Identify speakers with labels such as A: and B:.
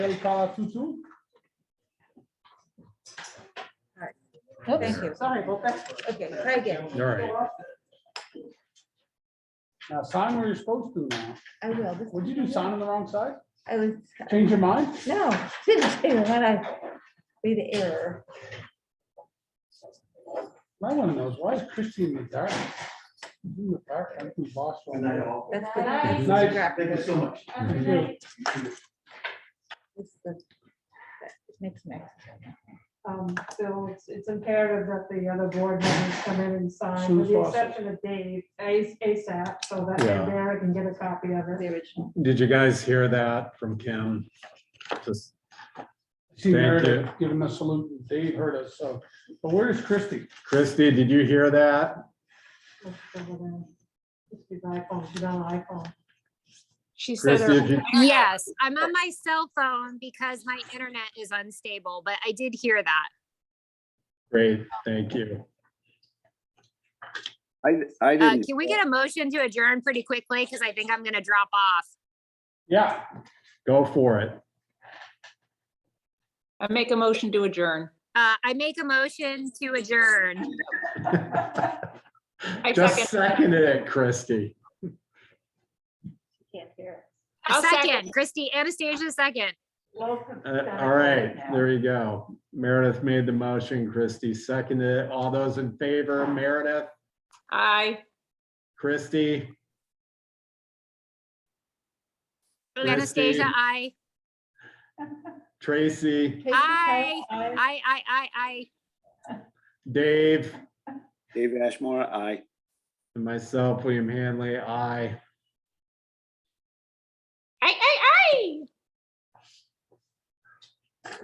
A: El Palatutu.
B: Thank you.
A: Sorry about that.
B: Okay, try again.
C: All right.
A: Now sign where you're supposed to now.
B: I will. This-
A: Would you do sign on the wrong side?
B: I was,
A: Change your mind?
B: no, didn't say that. I made an error.
A: My one of those. Why is Christie in the dark? She's In the dark, I'm from
D: Good night,
A: Boston.
D: all.
B: That's
E: Good night.
B: good.
A: Night.
B: Grab
D: Thank you
B: this.
D: so much.
E: Good night.
B: It's the- that Next, next.
E: Um, So it's, it's imperative that the other board members come in and sign,
A: Soon
E: with
A: as
E: the
A: possible.
E: exception of Dave, A- ASAP, so that
C: Yeah.
E: Mary can get a copy of
B: The
E: it.
B: original.
C: Did you guys hear that from Kim? Just,
A: See
C: Thank
A: Meredith giving a salute. and Dave heard us, so. But where is Christie?
C: Christy, did you hear that?
E: Let's go with that. Just use iPhone, she's on iPhone.
F: She said
C: Christy,
F: her.
C: if you,
F: Yes, I'm on my cell phone because my internet is unstable, but I did hear that.
C: great, thank you.
G: I, I
F: Uh,
G: didn't.
F: can we get a motion to adjourn pretty quickly? Because I think I'm gonna drop off.
A: Yeah,
C: Go for it.
H: I make a motion to adjourn.
F: Uh, I make a motion to adjourn.
H: I
C: Just
H: second.
C: seconded it, Christy.
B: Can't hear.
F: A
H: I'll second.
F: second, Christy, Anastasia, second.
C: Uh, All right, there you go. Meredith made the motion, Christy seconded it. All those in favor, Meredith,
H: Aye.
C: Christy, Christy.
F: Anastasia, I,
C: Tracy,
F: I, I, I, I, I.
C: Dave,
G: Dave Ashmore, aye.
C: and myself, William Hanley, aye.
H: Aye, aye,